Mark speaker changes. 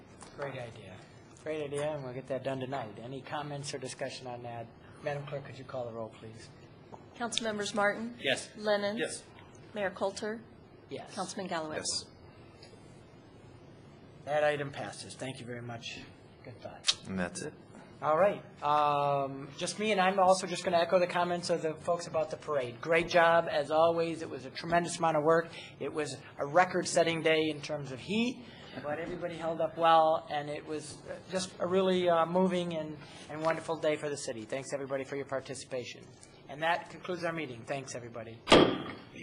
Speaker 1: Great idea. Great idea, and we'll get that done tonight. Any comments or discussion on that? Madam Clerk, could you call the roll, please?
Speaker 2: Councilmembers Martin?
Speaker 3: Yes.
Speaker 2: Lennon?
Speaker 3: Yes.
Speaker 2: Mayor Coulter?
Speaker 1: Yes.
Speaker 2: Councilman Galloway?
Speaker 3: Yes.
Speaker 1: That item passes. Thank you very much. Good thought.
Speaker 4: And that's it.
Speaker 1: All right. Um, Just me, and I'm also just going to echo the comments of the folks about the parade. Great job, as always. It was a tremendous amount of work. It was a record-setting day in terms of heat, but everybody held up well, and it was uh, just a really uh, moving and and wonderful day for the city. Thanks, everybody, for your participation. And that concludes our meeting. Thanks, everybody.